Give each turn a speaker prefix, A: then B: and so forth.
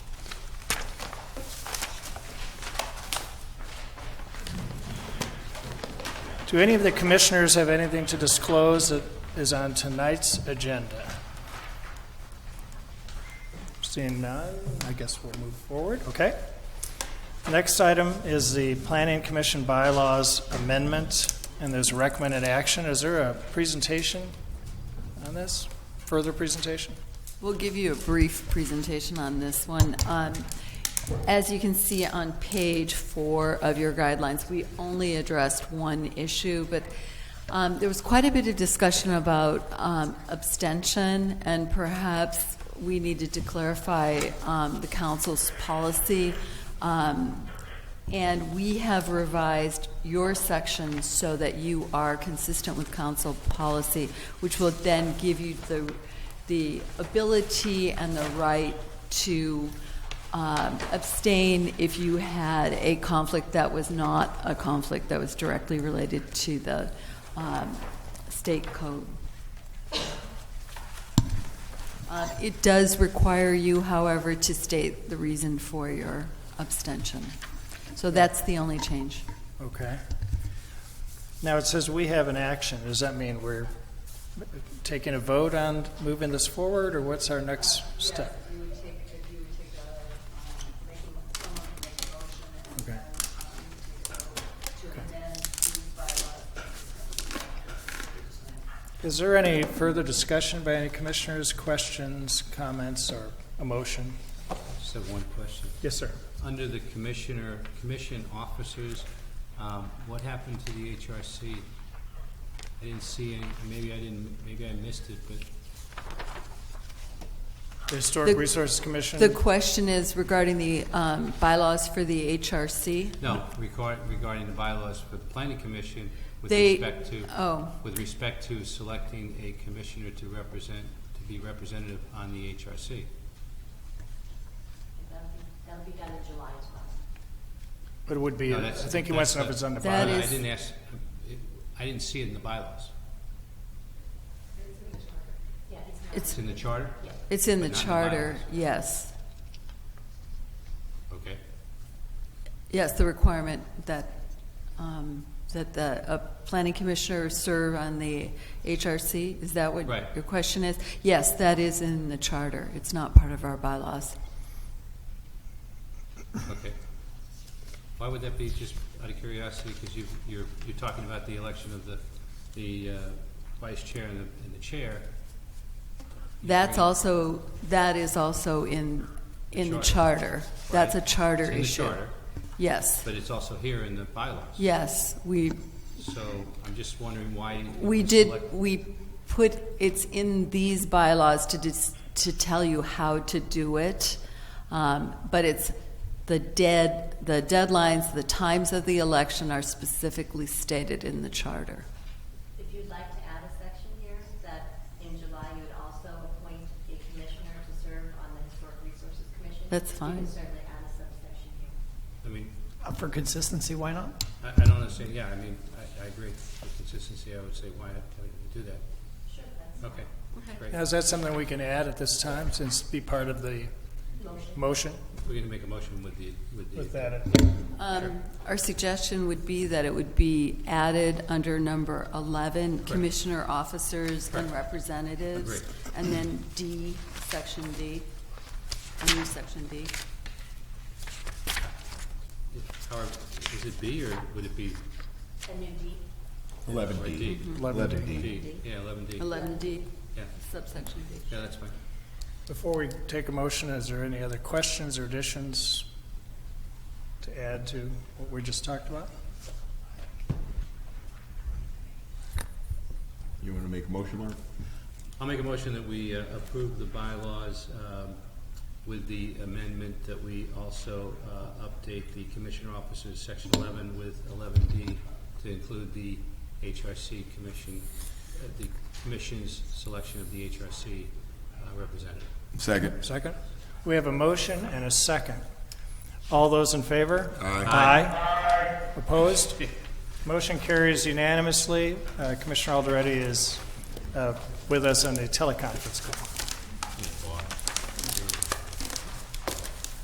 A: Do any of the commissioners have anything to disclose that is on tonight's agenda? Seeing none, I guess we'll move forward, okay? Next item is the Planning Commission bylaws amendment, and there's recommended action. Is there a presentation on this? Further presentation?
B: We'll give you a brief presentation on this one. Um, As you can see on page four of your guidelines, we only addressed one issue, but um, there was quite a bit of discussion about um, abstention, and perhaps we needed to clarify um, the council's policy. Um, And we have revised your section so that you are consistent with council policy, which will then give you the the ability and the right to um, abstain if you had a conflict that was not a conflict that was directly related to the um, state code. Uh, It does require you, however, to state the reason for your abstention. So that's the only change.
A: Okay. Now, it says we have an action. Does that mean we're taking a vote on moving this forward, or what's our next step? Okay. Okay. Is there any further discussion by any commissioners, questions, comments, or a motion?
C: Just have one question.
A: Yes, sir.
C: Under the commissioner, commission officers, um, what happened to the HRC? I didn't see any, maybe I didn't, maybe I missed it, but
A: The Historic
B: The-
A: Resources Commission?
B: The question is regarding the um, bylaws for the HRC.
C: no, regarding, regarding the bylaws for the planning commission with
B: They-
C: respect to,
B: Oh,
C: with respect to selecting a commissioner to represent, to be representative on the HRC.
D: That'll be, that'll be done in July as well.
A: But it would be,
C: No,
A: I
C: that's-
A: think he
C: that's
A: wants to know if it's on the
B: That
A: bylaw.
C: I
B: is-
C: didn't ask, it- I didn't see it in the bylaws.
B: it's
C: It's in the charter?
B: It's in the
C: But not in the
B: charter,
C: bylaws.
B: yes.
C: Okay.
B: Yes, the requirement that, um, that the uh, planning commissioner serve on the HRC, is that what
C: Right.
B: your question is? Yes, that is in the charter. It's not part of our bylaws.
C: Okay. Why would that be, just out of curiosity, because you, you're, you're talking about the election of the, the uh, vice chair and the, and the chair. You
B: That's
C: bring-
B: also, that is also in, in the charter. That's a
C: Right.
B: charter
C: It's in the
B: issue.
C: charter,
B: Yes,
C: but it's also here in the bylaws.
B: yes, we
C: So I'm just wondering why. you
B: We
C: would
B: did,
C: select-
B: we put, it's in these bylaws to, dis- to tell you how to do it, um, but it's the dead, the deadlines, the times of the election are specifically stated in the charter.
D: If you'd like to add a section here, that in July you would also appoint a commissioner to serve on the Historic Resources Commission.
B: That's
D: You
B: fine.
D: can certainly add a subsection here.
C: I mean,
E: Uh, For consistency, why not?
C: I, I don't understand, yeah, I mean, I, I agree. For consistency, I would say why, why did we do that?
D: Sure, that's
C: Okay, great.
A: Now, is that something we can add at this time, since be part of the
D: motion.
A: motion?
C: We're gonna make a motion with the, with the.
B: Um, Our suggestion would be that it would be added under number 11, commissioner officers and representatives.
C: Agreed.
B: And then D, section D, a new section D.
C: However, is it B or would it be
D: A new D,
F: Eleven
C: or
F: D.
C: D?
A: Eleven Mm-hmm. D.
C: D, yeah, eleven D.
B: 11D,
C: Yeah,
B: subsection D.
C: yeah, that's fine.
A: Before we take a motion, is there any other questions or additions to add to what we just talked about?
F: You want to make a motion, Mark?
C: I'll make a motion that we uh, approve the bylaws um, with the amendment that we also uh, update the commissioner officers, section eleven with eleven D to include the HRC commission, uh, the commission's selection of the HRC uh, representative.
F: Second.
A: Second? We have a motion and a second. All those in favor?
F: Aye.
A: Aye. Opposed? Motion carries unanimously. Uh, Commissioner Alderetti is uh, with us on the teleconference call.